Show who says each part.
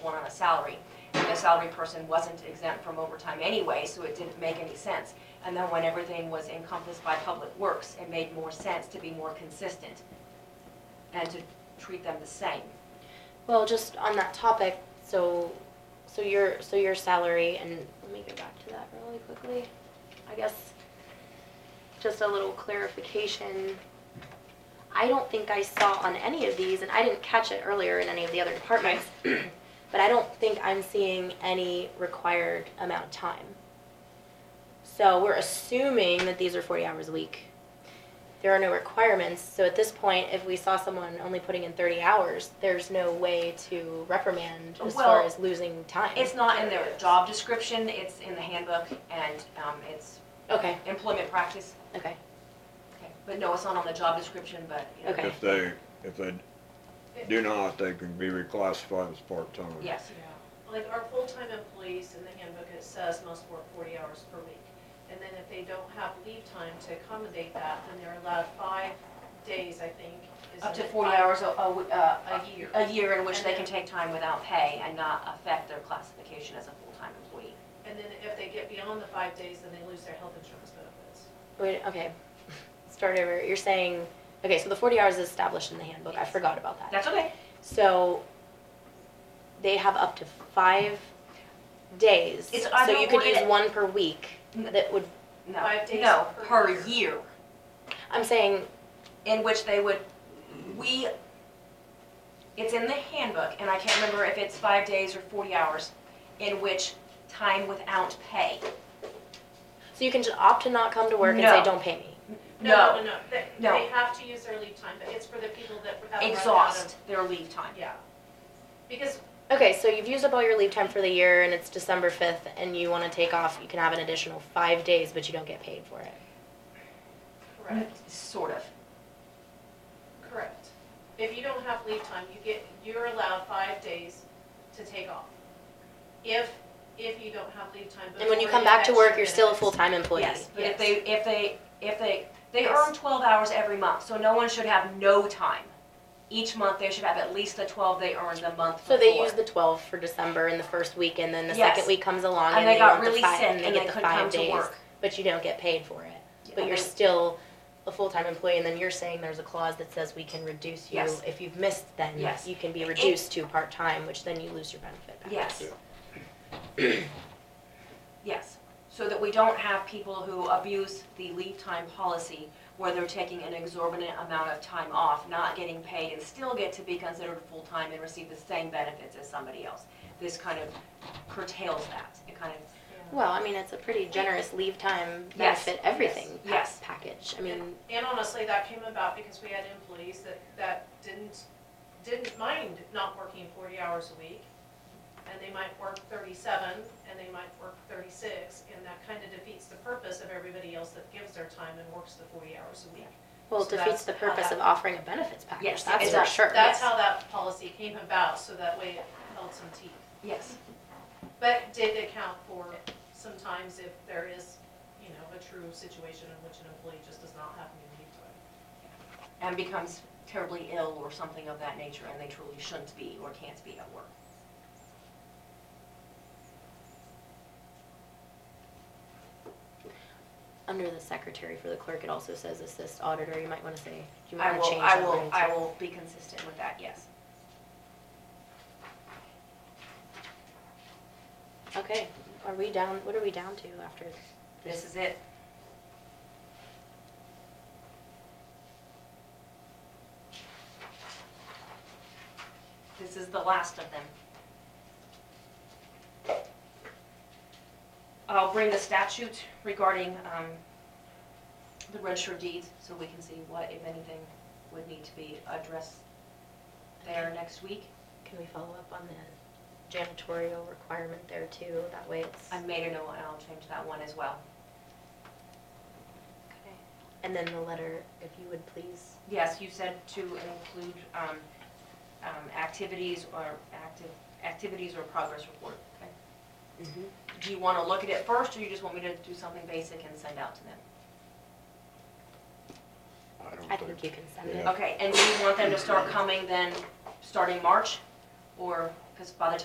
Speaker 1: one on a salary. And the salary person wasn't exempt from overtime anyway, so it didn't make any sense. And then when everything was encompassed by public works, it made more sense to be more consistent and to treat them the same.
Speaker 2: Well, just on that topic, so, so your, so your salary, and let me go back to that really quickly. I guess, just a little clarification. I don't think I saw on any of these, and I didn't catch it earlier in any of the other departments, but I don't think I'm seeing any required amount of time. So we're assuming that these are forty hours a week. There are no requirements, so at this point, if we saw someone only putting in thirty hours, there's no way to reprimand as far
Speaker 1: Well,
Speaker 2: as losing time.
Speaker 1: It's not in their job description, it's in the handbook and um, it's
Speaker 2: Okay,
Speaker 1: employment practice.
Speaker 2: okay,
Speaker 1: But no, it's not on the job description, but, you know,
Speaker 2: Okay.
Speaker 3: If they, if they do not, they can be reclassified as part-time.
Speaker 1: yes.
Speaker 4: Like our full-time employees in the handbook, it says must work forty hours per week. And then if they don't have leave time to accommodate that, then they're allowed five days, I think. is
Speaker 1: Up to
Speaker 4: it?
Speaker 1: forty hours a, a w- uh,
Speaker 4: A year.
Speaker 1: a year in which they can take time without pay and not affect their classification as a full-time employee.
Speaker 4: And then if they get beyond the five days, then they lose their health insurance benefits.
Speaker 2: wait, okay, start over, you're saying, okay, so the forty hours is established in the handbook, I forgot about that.
Speaker 1: That's okay.
Speaker 2: So they have up to five days.
Speaker 1: It's- I
Speaker 2: so
Speaker 1: don't
Speaker 2: you could
Speaker 1: want
Speaker 2: use
Speaker 1: it-
Speaker 2: one per week.
Speaker 1: Mm.
Speaker 2: That would.
Speaker 1: No,
Speaker 4: Five days
Speaker 1: no,
Speaker 4: per
Speaker 1: per
Speaker 4: year.
Speaker 1: year,
Speaker 2: I'm saying.
Speaker 1: in which they would, we, it's in the handbook, and I can't remember if it's five days or forty hours, in which time without pay.
Speaker 2: So you can just opt to not come to work and say,
Speaker 1: No.
Speaker 2: "Don't pay me."
Speaker 4: No, no, they,
Speaker 1: No.
Speaker 4: they have to use their leave time, but it's for the people that have run out of.
Speaker 1: Exhaust their leave time.
Speaker 4: Yeah. Because
Speaker 2: Okay, so you've used up all your leave time for the year, and it's December fifth, and you want to take off. You can have an additional five days, but you don't get paid for it.
Speaker 4: Correct,
Speaker 1: Sort of.
Speaker 4: correct. If you don't have leave time, you get, you're allowed five days to take off. If, if you don't have leave time.
Speaker 2: And when you come
Speaker 4: before the
Speaker 2: back to work,
Speaker 4: extra
Speaker 2: you're still a
Speaker 4: benefits.
Speaker 2: full-time employee.
Speaker 1: Yes, but if
Speaker 4: Yes.
Speaker 1: they, if they, if they, they
Speaker 4: Yes.
Speaker 1: earn twelve hours every month, so no one should have no time. Each month, they should have at least the twelve they earned the month before.
Speaker 2: So they use the twelve for December in the first week, and then the
Speaker 1: Yes.
Speaker 2: second week comes along,
Speaker 1: And
Speaker 2: and
Speaker 1: they
Speaker 2: they
Speaker 1: got
Speaker 2: want the
Speaker 1: really
Speaker 2: five,
Speaker 1: sick
Speaker 2: and they
Speaker 1: and
Speaker 2: get
Speaker 1: they
Speaker 2: the
Speaker 1: couldn't come
Speaker 2: five
Speaker 1: to
Speaker 2: days,
Speaker 1: work.
Speaker 2: but you don't get paid for it. But
Speaker 1: And
Speaker 2: you're
Speaker 1: they-
Speaker 2: still a full-time employee, and then you're saying there's a clause that says we can reduce you,
Speaker 1: Yes.
Speaker 2: if you've missed, then
Speaker 1: Yes.
Speaker 2: you can be reduced to part-time, which then you lose your benefit back.
Speaker 1: Yes. Yes, so that we don't have people who abuse the leave time policy where they're taking an exorbitant amount of time off, not getting paid, and still get to be considered full-time and receive the same benefits as somebody else. This kind of curtails that, it kind of,
Speaker 2: Well, I mean, it's a pretty generous leave time
Speaker 1: Yes.
Speaker 2: benefit, everything pa-
Speaker 1: Yes.
Speaker 2: package, I mean,
Speaker 4: And honestly, that came about because we had employees that, that didn't, didn't mind not working forty hours a week. And they might work thirty-seven, and they might work thirty-six, and that kind of defeats the purpose of everybody else that gives their time and works the forty hours a week.
Speaker 2: well, it
Speaker 4: So
Speaker 2: defeats
Speaker 4: that's
Speaker 2: the
Speaker 4: how
Speaker 2: purpose
Speaker 4: that-
Speaker 2: of offering a benefits package,
Speaker 1: Yes,
Speaker 2: that's
Speaker 1: it
Speaker 2: for
Speaker 1: does.
Speaker 2: sure.
Speaker 4: That's how that policy came about, so that way it held some teeth.
Speaker 1: yes.
Speaker 4: But it did account for sometimes if there is, you know, a true situation in which an employee just does not have any leave time.
Speaker 1: and becomes terribly ill or something of that nature, and they truly shouldn't be or can't be at work.
Speaker 2: Under the secretary for the clerk, it also says assist auditor, you might wanna say, you might
Speaker 1: I
Speaker 2: wanna
Speaker 1: will,
Speaker 2: change
Speaker 1: I
Speaker 2: that
Speaker 1: will,
Speaker 2: wording
Speaker 1: I
Speaker 2: to-
Speaker 1: will be consistent with that, yes.
Speaker 2: Okay, are we down, what are we down to after?
Speaker 1: This is it. This is the last of them. I'll bring the statute regarding um, the register of deeds, so we can see what, if anything, would need to be addressed there next week.
Speaker 2: Can we follow up on the janitorial requirement there too? That way it's.
Speaker 1: I made a note, and I'll change that one as well.
Speaker 2: Okay. And then the letter, if you would please.
Speaker 1: Yes, you said to include um, um, activities or active, activities or progress report. Okay. Do you want to look at it first, or you just want me to do something basic and send out to them?
Speaker 3: I
Speaker 2: I
Speaker 3: don't
Speaker 2: think
Speaker 3: think,
Speaker 2: you can send it.
Speaker 3: Yeah.
Speaker 1: Okay, and do you want them to start coming then, starting March? Or, because by the time